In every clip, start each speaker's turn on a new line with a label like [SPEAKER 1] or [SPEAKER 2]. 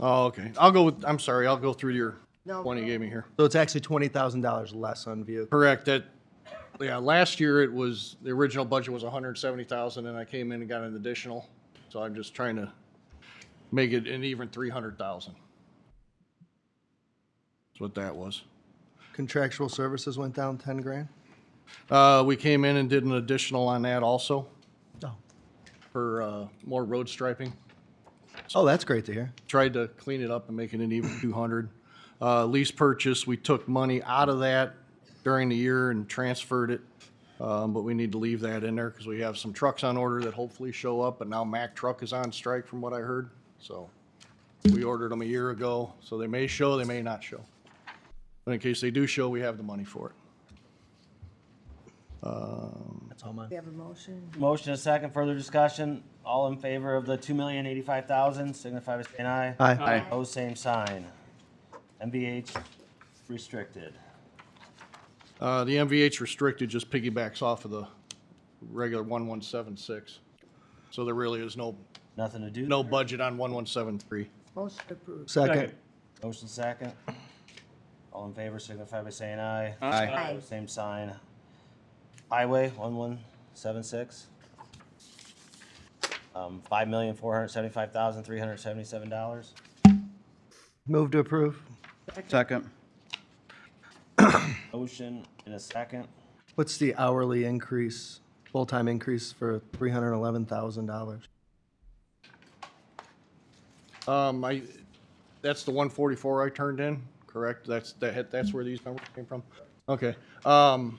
[SPEAKER 1] Oh, okay. I'll go with, I'm sorry, I'll go through your
[SPEAKER 2] No,
[SPEAKER 1] one you
[SPEAKER 2] go
[SPEAKER 1] gave me here.
[SPEAKER 3] So it's actually twenty thousand dollars less on vehicle.
[SPEAKER 1] Correct, that, yeah, last year it was, the original budget was hundred and seventy thousand, and I came in and got an additional. So I'm just trying to make it an even three hundred thousand. That's what that was.
[SPEAKER 3] Contractual services went down ten grand?
[SPEAKER 1] Uh, we came in and did an additional on that also
[SPEAKER 3] Oh.
[SPEAKER 1] for, uh, more road striping.
[SPEAKER 3] Oh, that's great to hear.
[SPEAKER 1] tried to clean it up and make it an even two hundred. Uh, lease purchase, we took money out of that during the year and transferred it. Um, but we need to leave that in there because we have some trucks on order that hopefully show up, and now Mack Truck is on strike from what I heard, so. We ordered them a year ago, so they may show, they may not show. But in case they do show, we have the money for it.
[SPEAKER 3] That's all mine.
[SPEAKER 2] We have a motion.
[SPEAKER 4] Motion is second, further discussion. All in favor of the two million eighty-five thousand, signify by saying aye.
[SPEAKER 3] Aye.
[SPEAKER 2] Aye.
[SPEAKER 4] Opposed, same sign. MVH restricted.
[SPEAKER 1] Uh, the MVH restricted just piggybacks off of the regular one one seven six. So there really is no
[SPEAKER 4] Nothing to do.
[SPEAKER 1] No
[SPEAKER 4] there.
[SPEAKER 1] budget on 1173.
[SPEAKER 2] Motion approved.
[SPEAKER 3] Second.
[SPEAKER 4] Motion second. All in favor, signify by saying aye.
[SPEAKER 3] Aye.
[SPEAKER 2] Aye.
[SPEAKER 4] Same sign. Highway one one seven six. Um, five million four hundred seventy-five thousand three hundred seventy-seven dollars.
[SPEAKER 3] Move to approve.
[SPEAKER 5] Second.
[SPEAKER 4] Motion in a second.
[SPEAKER 3] What's the hourly increase, full-time increase for three hundred and eleven thousand dollars?
[SPEAKER 1] Um, I, that's the 144 I turned in, correct? That's, that, had- that's where these numbers came from? Okay. Um,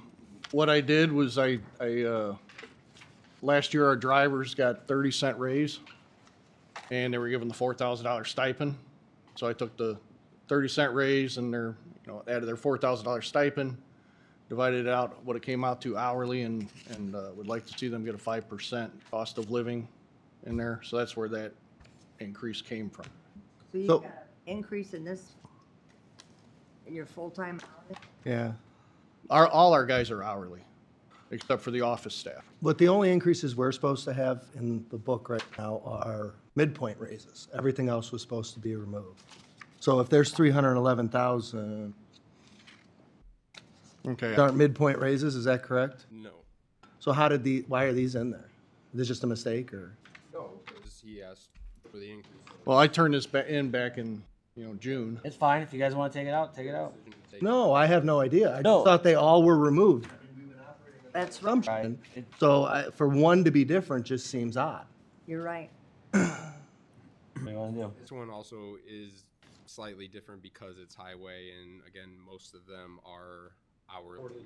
[SPEAKER 1] what I did was I, I, uh, last year our drivers got 30 cent raise and they were given the $4,000 stipend. So I took the 30 cent raise and their, you know, added their $4,000 stipend, divided it out what it came out to hourly and, and, uh, would like to see them get a 5% cost of living in there. So that's where that increase came from.
[SPEAKER 2] So you
[SPEAKER 3] So-
[SPEAKER 2] got an increase in this, in your full-time, hours?
[SPEAKER 3] Yeah.
[SPEAKER 1] Our, all our guys are hourly, except for the office staff.
[SPEAKER 3] But the only increases we're supposed to have in the book right now are midpoint raises. Everything else was supposed to be removed. So if there's three hundred and eleven thousand,
[SPEAKER 1] Okay.
[SPEAKER 3] aren't midpoint raises, is that correct?
[SPEAKER 6] No.
[SPEAKER 3] So how did the, why are these in there? Is this just a mistake or?
[SPEAKER 6] No, because he asked for the increase.
[SPEAKER 1] Well, I turned this ba- in back in, you know, June.
[SPEAKER 4] It's fine. If you guys want to take it out, take it out.
[SPEAKER 3] No, I have no idea. I
[SPEAKER 4] No.
[SPEAKER 3] just thought they all were removed.
[SPEAKER 2] that's, right.
[SPEAKER 3] Assumption.
[SPEAKER 4] Right.
[SPEAKER 3] So I, for one to be different just seems odd.
[SPEAKER 2] you're right.
[SPEAKER 4] What do you want to do?
[SPEAKER 6] This one also is slightly different because it's highway, and again, most of them are hourly.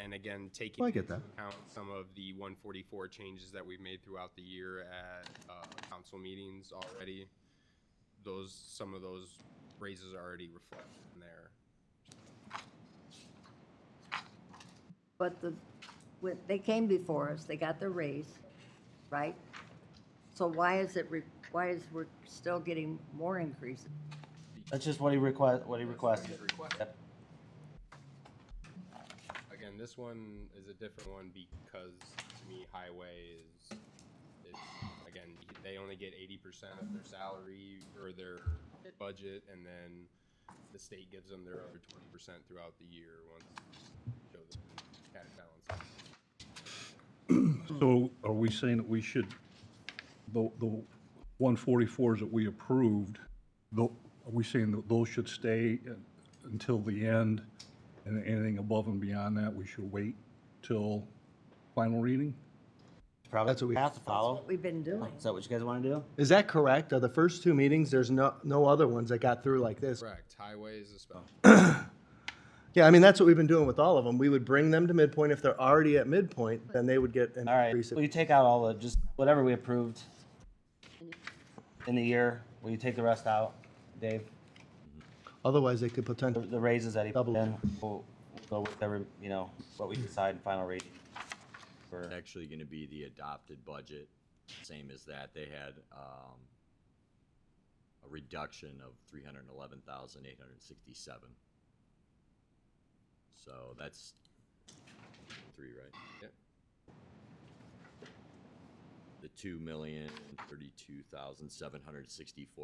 [SPEAKER 6] And again, taking
[SPEAKER 3] Well, Oh, I get
[SPEAKER 6] into
[SPEAKER 3] that.
[SPEAKER 6] account some of the 144 changes that we've made throughout the year at uh, council meetings already, those some of those raises are already reflected in there.
[SPEAKER 2] But the, when, they came before us, they got their raise, right? So why is it, re- why is we're still getting more increases?
[SPEAKER 4] That's just what he request, what he requested. Yep.
[SPEAKER 6] Again, this one is a different one because to me, highway is, is again, they only get eighty percent of their salary or their budget, and then the state gives them their other twenty percent throughout the year once. they show them kind of balance.
[SPEAKER 7] So are we saying that we should, the, the one forty-fours that we approved, tho- are we saying that those should stay until the end? And anything above and beyond that, we should wait till final reading?
[SPEAKER 4] Probably
[SPEAKER 3] That's what we-
[SPEAKER 4] have to follow.
[SPEAKER 2] What we've been doing.
[SPEAKER 4] Is that what you guys want to do?
[SPEAKER 3] Is that correct? Are the first two meetings, there's no, no other ones that got through like this?
[SPEAKER 6] Correct, highway is a special.
[SPEAKER 3] Yeah, I mean, that's what we've been doing with all of them. We would bring them to midpoint. If they're already at midpoint, then they would get an
[SPEAKER 4] All right,
[SPEAKER 3] increase.
[SPEAKER 4] will you take out all the, just whatever we approved in the year, will you take the rest out, Dave?
[SPEAKER 3] Otherwise, they could
[SPEAKER 4] The-
[SPEAKER 3] potentially,
[SPEAKER 4] The raises that he put
[SPEAKER 3] Double.
[SPEAKER 4] in, we'll we'll go with every, you know, what we decide in final rating. For,
[SPEAKER 8] It's actually gonna be the adopted budget, same as that. They had, um, a reduction of three hundred and eleven thousand eight hundred and sixty-seven. So that's three, right?
[SPEAKER 6] Yep.
[SPEAKER 8] The two million thirty-two thousand seven hundred sixty-four